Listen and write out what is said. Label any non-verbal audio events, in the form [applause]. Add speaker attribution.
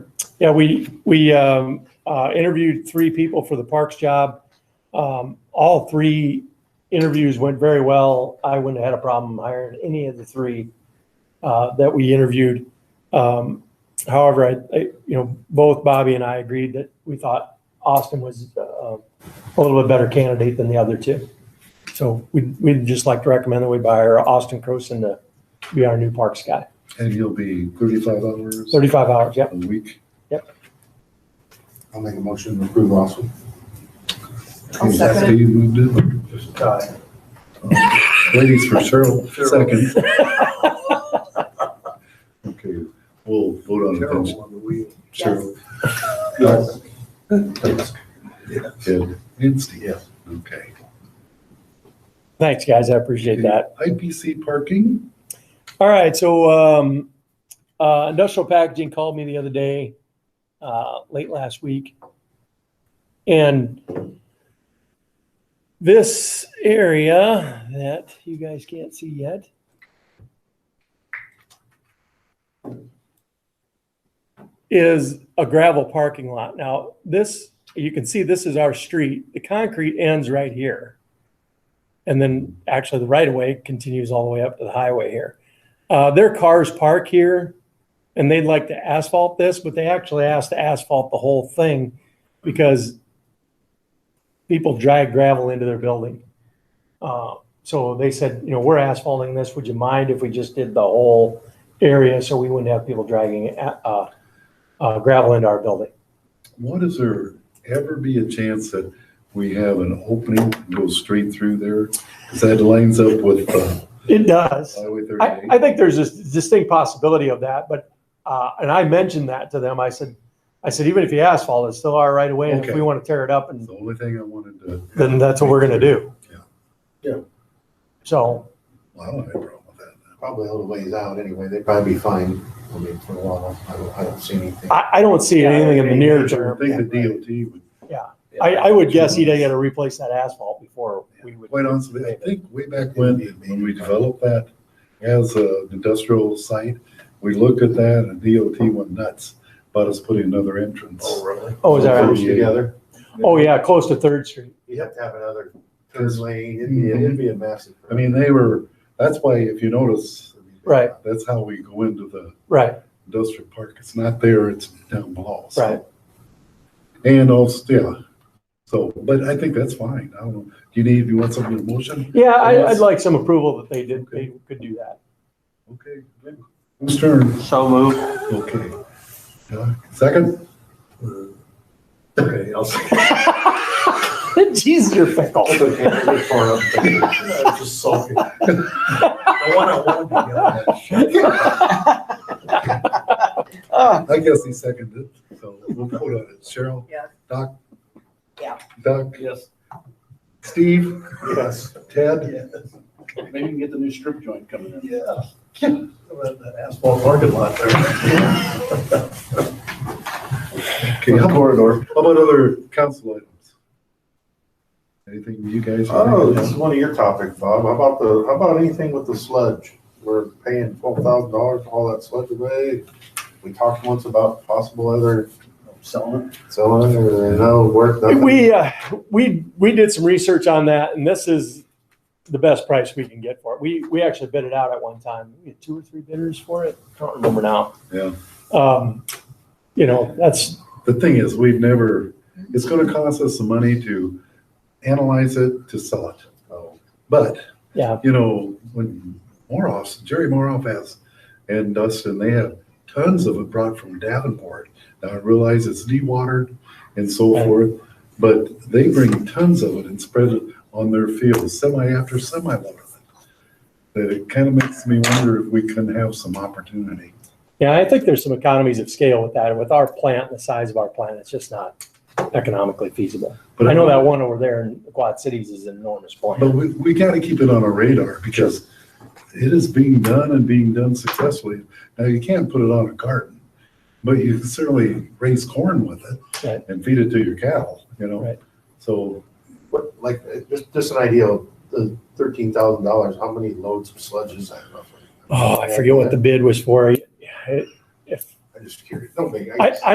Speaker 1: Yeah, we, we um, uh, interviewed three people for the Parks job. Um, All three interviews went very well. I wouldn't have had a problem hiring any of the three uh, that we interviewed. Um, However, I, I- you know, both Bobby and I agreed that we thought Austin was uh, a little bit better candidate than the other two. So we'd, we'd just like to recommend that we hire Austin Croson to be our new Parks guy.
Speaker 2: And you'll be thirty-five hours
Speaker 1: 35 hours, yep.
Speaker 2: a week.
Speaker 3: I'll make a motion to approve Austin.
Speaker 4: I'll second it.
Speaker 2: Steve moved it. Oh, Ladies for Cheryl, second. Okay, we'll vote on it.
Speaker 3: on the wheel.
Speaker 2: Cheryl.
Speaker 3: Yes.
Speaker 2: Ed, and Steve. Okay.
Speaker 1: Thanks, guys. I appreciate that.
Speaker 2: IPC parking,
Speaker 1: All right, so um, uh, Industrial Packaging called me the other day, uh, late last week. And this area that you guys can't see yet. Is a gravel parking lot. Now, this, you can see this is our street. The concrete ends right here. And then actually the right of way continues all the way up to the highway here. Uh, their cars park here and they'd like to asphalt this, but they actually asked to asphalt the whole thing because people drag gravel into their building. Uh, so they said, you know, we're asphalting this. Would you mind if we just did the whole area so we wouldn't have people dragging uh, uh, uh, gravel into our building?
Speaker 2: what is there ever be a chance that we have an opening that goes straight through there? Because that lines up with uh,
Speaker 1: It does.
Speaker 2: Highway
Speaker 1: I,
Speaker 2: thirty-eight.
Speaker 1: I think there's a distinct possibility of that, but, uh, and I mentioned that to them. I said, I said, even if you asphalt, it's still our right of way. And if
Speaker 2: Okay.
Speaker 1: we want to tear it up and
Speaker 2: That's The only thing I wanted to,
Speaker 1: then that's what we're gonna do.
Speaker 2: Yeah.
Speaker 3: Yeah.
Speaker 1: So,
Speaker 2: well, I don't have a problem with that.
Speaker 3: Probably a little ways out anyway. They'd probably be fine. I mean, for a while, I don't, I don't see anything.
Speaker 1: I, I don't see anything in the near
Speaker 2: I
Speaker 1: term.
Speaker 2: think the DOT would,
Speaker 1: I, I would guess he'd gotta replace that asphalt before we would.
Speaker 2: quite honestly, I think way back when, when we developed that as a industrial site, we looked at that and DOT went nuts, about us putting another entrance.
Speaker 3: really?
Speaker 1: Oh, is that right?
Speaker 3: Close Together.
Speaker 1: Oh, yeah, close to Third Street.
Speaker 3: You'd have to have another third lane. It'd be,
Speaker 1: Mm-hmm.
Speaker 3: it'd be a massive.
Speaker 2: I mean, they were, that's why if you notice,
Speaker 1: Right,
Speaker 2: that's how we go into the
Speaker 1: right,
Speaker 2: industrial park. It's not there, it's down below. so.
Speaker 1: right.
Speaker 2: And also, yeah, so, but I think that's fine. I don't know. Do you need, you want something in motion?
Speaker 1: Yeah, I, I'd like some approval that they did, they could do that. [laughs]
Speaker 2: Okay. Whose turn?
Speaker 5: So moved.
Speaker 2: Okay. Yeah,
Speaker 3: [laughs]
Speaker 2: Second?
Speaker 3: Okay, I'll say.
Speaker 1: Jeez, you're fickle.
Speaker 3: Just sulking. I want to.
Speaker 2: I guess he seconded it, so we'll vote on it. Cheryl?
Speaker 4: Yeah.
Speaker 2: Doc?
Speaker 4: Yeah.
Speaker 2: Doc?
Speaker 6: Yes,
Speaker 2: Steve?
Speaker 3: Yes.
Speaker 2: Ted?
Speaker 6: maybe we can get the new strip joint coming in.
Speaker 3: Yeah. About That asphalt parking lot there.
Speaker 2: Okay, how about, how about other council items? Anything you guys?
Speaker 3: Oh, this is one of your topics, Bob. How about the, how about anything with the sludge? We're paying twelve thousand dollars for all that sludge away. We talked once about possible other
Speaker 6: Selling it.
Speaker 3: selling or no work. nothing.
Speaker 1: We, uh, we, we did some research on that and this is the best price we can get for it. We, we actually bid it out at one time. We had two or three bidders for it. I don't remember now.
Speaker 2: Yeah.
Speaker 1: Um, you know, that's,
Speaker 2: The thing is, we've never, it's gonna cost us some money to analyze it, to sell it.
Speaker 3: Oh.
Speaker 2: But,
Speaker 1: yeah,
Speaker 2: you know, when Moroff's, Jerry Moroff has, and Dustin, they have tons of it brought from Davenport. Now I realize it's dewatered and so
Speaker 1: Right.
Speaker 2: forth, but they bring tons of it and spread it on their fields, semi after semi load of it. That it kind of makes me wonder if we can have some opportunity.
Speaker 1: Yeah, I think there's some economies of scale with that. With our plant, and the size of our plant, it's just not economically feasible.
Speaker 2: But
Speaker 1: I know that one over there in the Quad Cities is an enormous
Speaker 2: But
Speaker 1: plant.
Speaker 2: we, we gotta keep it on our radar because it is being done and being done successfully. Now, you can't put it on a garden, but you can certainly raise corn with
Speaker 1: Right.
Speaker 2: it and feed it to your cattle, you know?
Speaker 1: Right.
Speaker 2: So,
Speaker 3: What, like, uh, just, just an idea of the thirteen thousand dollars, how many loads of sludge is that roughly?
Speaker 1: Oh, I forget what the bid was for. Yeah, it- If,
Speaker 3: I'm just curious. Don't make.
Speaker 1: I,